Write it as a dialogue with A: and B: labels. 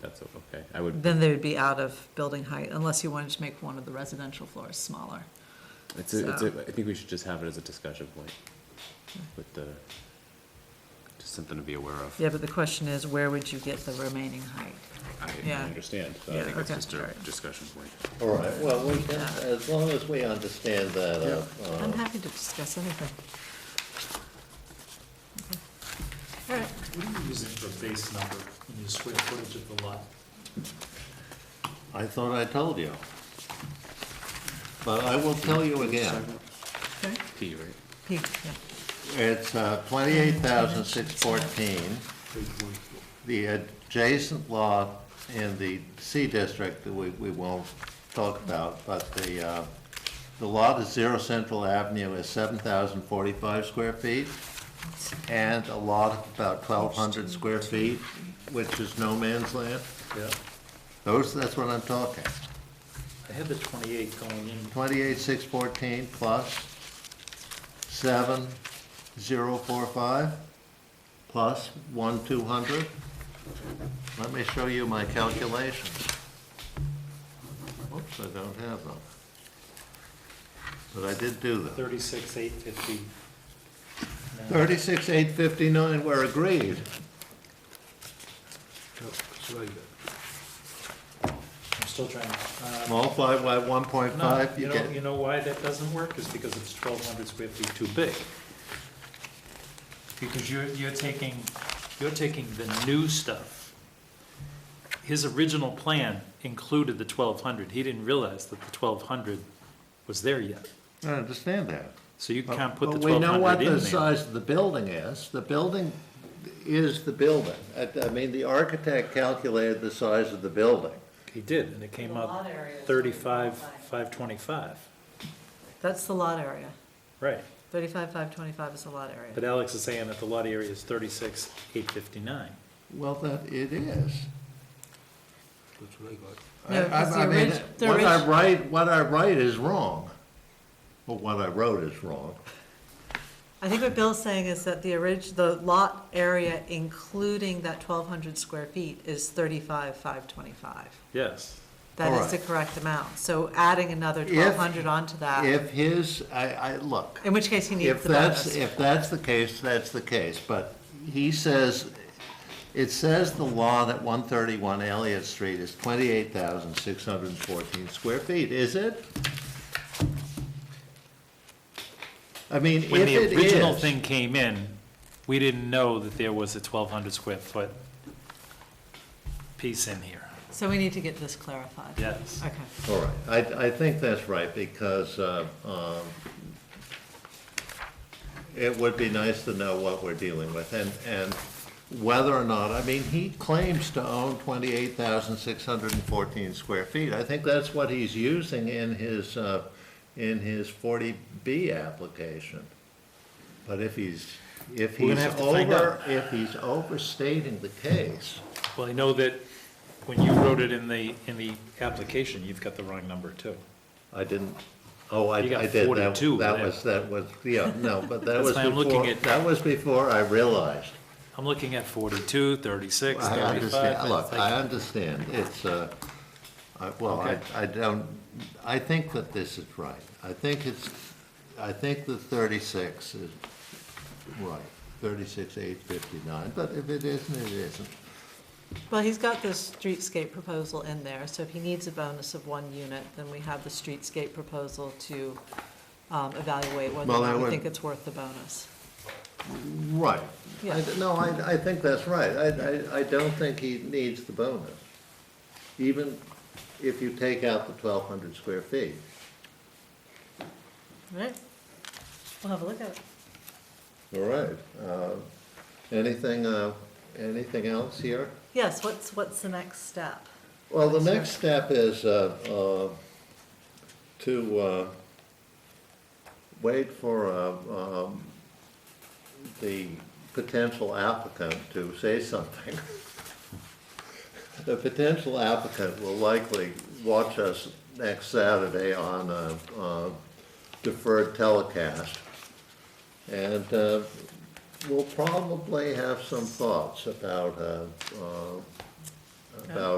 A: that's okay. I would,
B: Then they would be out of building height unless you wanted to make one of the residential floors smaller.
A: it's, a- it's, a- I think we should just have it as a discussion point with the, just something to be aware of.
B: Yeah, but the question is, where would you get the remaining height?
A: I, I
B: Yeah.
A: understand, but I
B: Yeah,
A: think it's
B: okay,
A: just a
B: sorry.
A: discussion point.
C: All right, well, we can, as long as we understand that, uh,
B: I'm happy to discuss anything. All right,
D: What are you using for base number in your square footage of the lot?
C: I thought I told you. But I will tell you again,
B: okay,
A: P, right?
B: P, yeah.
C: it's uh, twenty-eight thousand six fourteen. The adjacent lot in the C district that we, we won't talk about, but the, uh, the lot at Zero Central Avenue is seven thousand forty-five square feet and a lot of about twelve hundred square feet, which is no man's land.
D: Yeah.
C: Those, that's what I'm talking.
D: I had the twenty-eight going in,
C: Twenty-eight, six fourteen plus seven, zero, four, five, plus one, two hundred. Let me show you my calculations. Oops, I don't have them. But I did do them.
D: thirty-six, eight fifty.
C: Thirty-six, eight fifty-nine, we're agreed.
D: I'm still trying, uh,
C: Multiply by one point
D: no,
C: five,
D: you
C: you
D: know, you
C: get,
D: know why that doesn't work, is because it's twelve hundred square feet too big. Because you're, you're taking, you're taking the new stuff. His original plan included the twelve hundred, he didn't realize that the twelve hundred was there yet.
C: I understand that.
D: So you
C: But-
D: can't put the
C: but we
D: twelve
C: know what
D: hundred in
C: the
D: there.
C: size of the building is. The building is the building. I, I mean, the architect calculated the size of the building.
D: He did, and it came up thirty-five, five twenty-five,
B: That's the lot area.
D: right.
B: Thirty-five, five twenty-five is the lot area.
D: But Alex is saying that the lot area is thirty-six, eight fifty-nine.
C: Well, that, it is. I-
B: No, 'cause
C: I- I
B: the
C: mean,
B: orig- the
C: What I
B: orig-
C: write, what I write is wrong. Well, what I wrote is wrong.
B: I think what Bill's saying is that the orig, the lot area including that twelve hundred square feet is thirty-five, five twenty-five.
D: Yes,
B: That
C: All
B: is the
C: right.
B: correct amount, so adding another
C: If-
B: twelve hundred onto that,
C: If his, I, I, look,
B: in which case he needs
C: if
B: the
C: that's,
B: bonus.
C: if that's the case, that's the case. But he says, it says the law that 131 Elliott Street is 28,614 square feet, is it? I mean, if
D: when
C: it
D: the original
C: is-
D: thing came in, we didn't know that there was a twelve hundred square foot piece in here,
B: So we need to get this clarified.
D: yes.
B: Okay,
C: All right, I, I think that's right, because uh, um, it would be nice to know what we're dealing with, and, and whether or not, I mean, he claims to own 28,614 square feet. I think that's what he's using in his, uh, in his 40B application. But if he's, if
D: We're
C: he's
D: gonna have to find
C: over, if he's overstating the case,
D: Well, I know that when you wrote it in the, in the application, you've got the wrong number too.
C: I didn't, oh, I, I
D: You got
C: did, that,
D: 42
C: that
D: there.
C: was, that was, yeah, no, but that
D: That's
C: was
D: why I'm looking
C: before,
D: at-
C: that was before I realized.
D: I'm looking at forty-two, thirty-six,
C: I
D: thirty-five.
C: understand,
D: it's
C: look,
D: like-
C: I understand, it's, uh, I- well, I,
D: Okay.
C: I don't, I think that this is right. I think it's, I think the thirty-six is right, thirty-six, eight fifty-nine, but if it isn't, it isn't.
B: well, he's got this streetscape proposal in there, so if he needs a bonus of one unit, then we have the streetscape proposal to um, evaluate whether
C: Well,
B: or
C: I
B: not we
C: would-
B: think it's worth the bonus.
C: Right.
B: Yeah.
C: I- No, I, I think that's right. I, I, I don't think he needs the bonus, even if you take out the twelve hundred square feet.
B: All right, we'll have a look at it.
C: All right. Uh, Anything, uh, anything else here?
B: Yes, what's, what's the next step?
C: Well, the next step is uh, uh, to uh, wait for uh, um, the potential applicant to say something. The potential applicant will likely watch us next Saturday on a uh, deferred telecast. And uh, we'll probably have some thoughts about, uh, uh, about